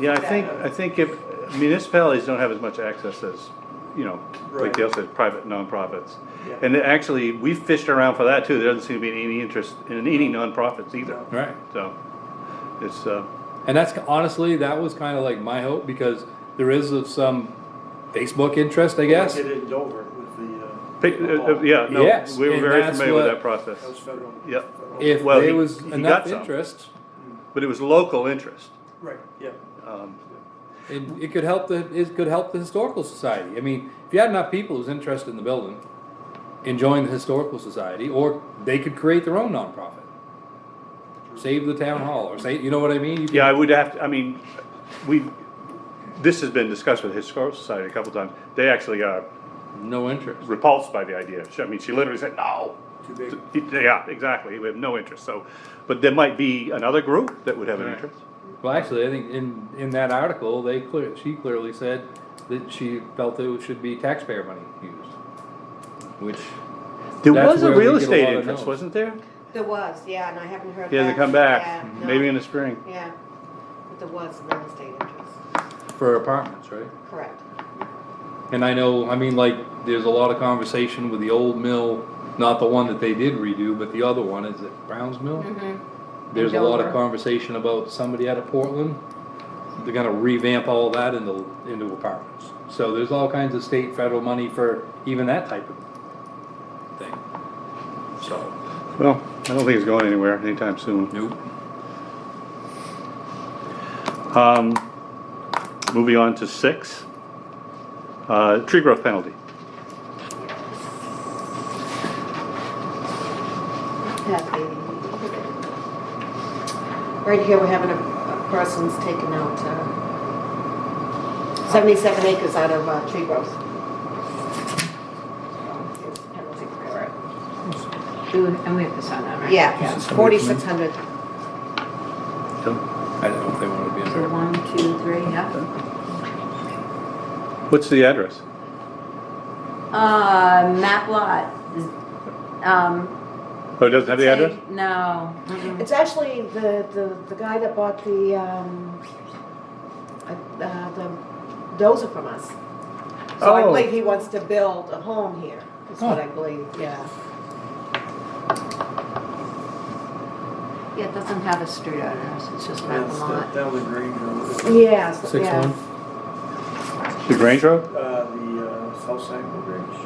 Yeah, I think, I think if municipalities don't have as much access as, you know, like Right. Dale said, private nonprofits. Yeah. And actually, we fished around for that too, there doesn't seem to be any interest in any nonprofits either, Right. so, it's, uh, And that's honestly, that was kind of like my hope because there is of some Facebook interest, I guess. Did it in Dover with the. uh, pick- uh, uh, ball. yeah, no, Yes, we were and very that's familiar with what- that process. That was federal. Yep. federal. If Well, there he- was he enough got some. interest, But it was local interest, Right, yeah. um, and it could help the it could help the historical society. I mean, if you had enough people who's interested in the building, enjoying the historical society, or they could create their own nonprofit, save the town hall, or say, you know what I mean? You could- Yeah, I would have, to. I mean, we, this has been discussed with the Historical Society a couple times. They actually are No interest. repulsed by the idea. She- I mean, she literally said, no. Too big. Yeah, exactly, we have no interest, so, but there might be another group that would have an Right. interest. Well, actually, I think in in that article, they clear she clearly said that she felt that it should be taxpayer money used, which. There That's was a where we real get a estate lot of interest, no's. wasn't there? There was, yeah, and I haven't heard. He hasn't come Yeah, back, no. maybe in the spring. Yeah, but there was real estate interest, For apartments, right? correct. And I know, I mean, like, there's a lot of conversation with the old mill, not the one that they did redo, but the other one, is it Brown's Mill? There's a lot of Mm-hmm. Dover. conversation about somebody out of Portland, they're gonna revamp all that into, into apartments. So there's all kinds of state, federal money for even that type of thing. So. Well, I don't think it's going anywhere anytime soon. Nope. Um, moving on to six, uh, tree growth penalty. That baby. Right here, we're having a, a person's taking out, uh, seventy-seven acres out of, uh, tree growth. It's a penalty for it. Do- And we have to sign that, right? Yeah, This is forty-six hundred. I don't know if they wanna be in So there. one, two, three, yeah. What's the address? Uh, map lot. is- Um. Oh, it doesn't have the address? take- No. Mm-mm. It's actually the, the, the guy that bought the, um, uh, uh, the dozer from us. So I Oh. believe he wants to build a home here, is what I believe, yeah. Yeah, it doesn't have a street address, it's just map That's the- lot. Down the green road. Yeah, so- Six yeah. one? The Grange Road? Uh, the, uh, South Sangamon Bridge.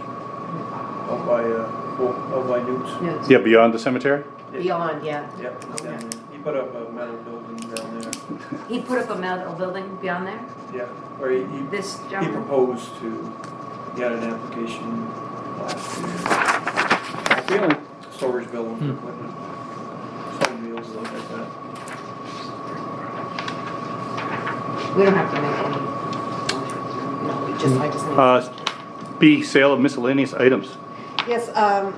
Out by, uh, Fort- out by Newt's. No, it's- Yeah, beyond the cemetery? Beyond, yeah. Yep, down there. He put up a metal building down there. He put up a metal building beyond there, Yeah, or he, he this He gentleman. proposed to, he had an application last year, storage building for equipment, stone wheels, stuff like that. We don't have to make any motions or anything. No, we just, I just need. Uh, B, sale of miscellaneous items. Yes, um,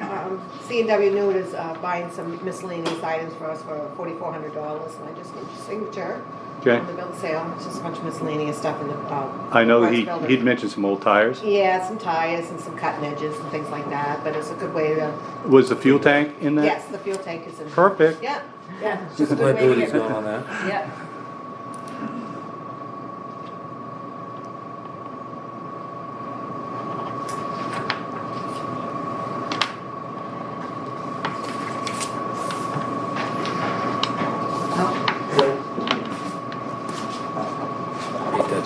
um, CNW Newt is uh, buying some miscellaneous items for us for forty-four hundred dollars, and I just need your signature. Okay. On the bill of sale, it's just a bunch of miscellaneous stuff in the, um. I know price he, builder. he'd mentioned some old tires. Yeah, some tires and some cutting edges and things like that, but it's a good way to, Was the fuel tank in that? yes, the fuel tank is in. Perfect. Yeah, yeah. it's just a good way to Liability's get- not on that. Yeah. Oh. Ain't that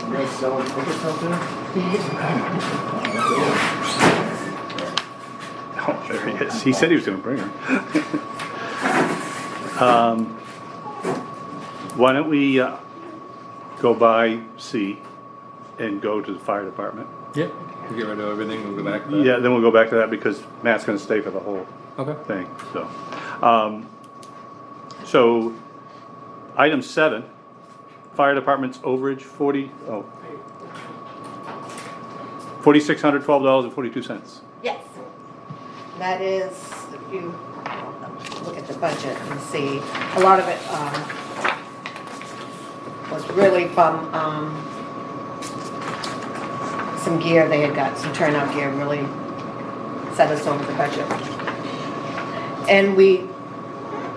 to it. You guys selling tickets out there? Oh, there he is. He said he was gonna bring her. Um, Why don't we, uh, go by C and go to the fire department? Yep, we get rid of everything, we'll go back to that. Yeah, then we'll go back to that because Matt's gonna stay for the whole Okay. thing, so. Um, so, item seven, fire department's overage forty, oh. Forty-six hundred twelve dollars and forty-two cents. Yes. That is, if you look at the budget and see, a lot of it, um, was really from, um, some gear they had got, some turnout gear really set us over the budget. And we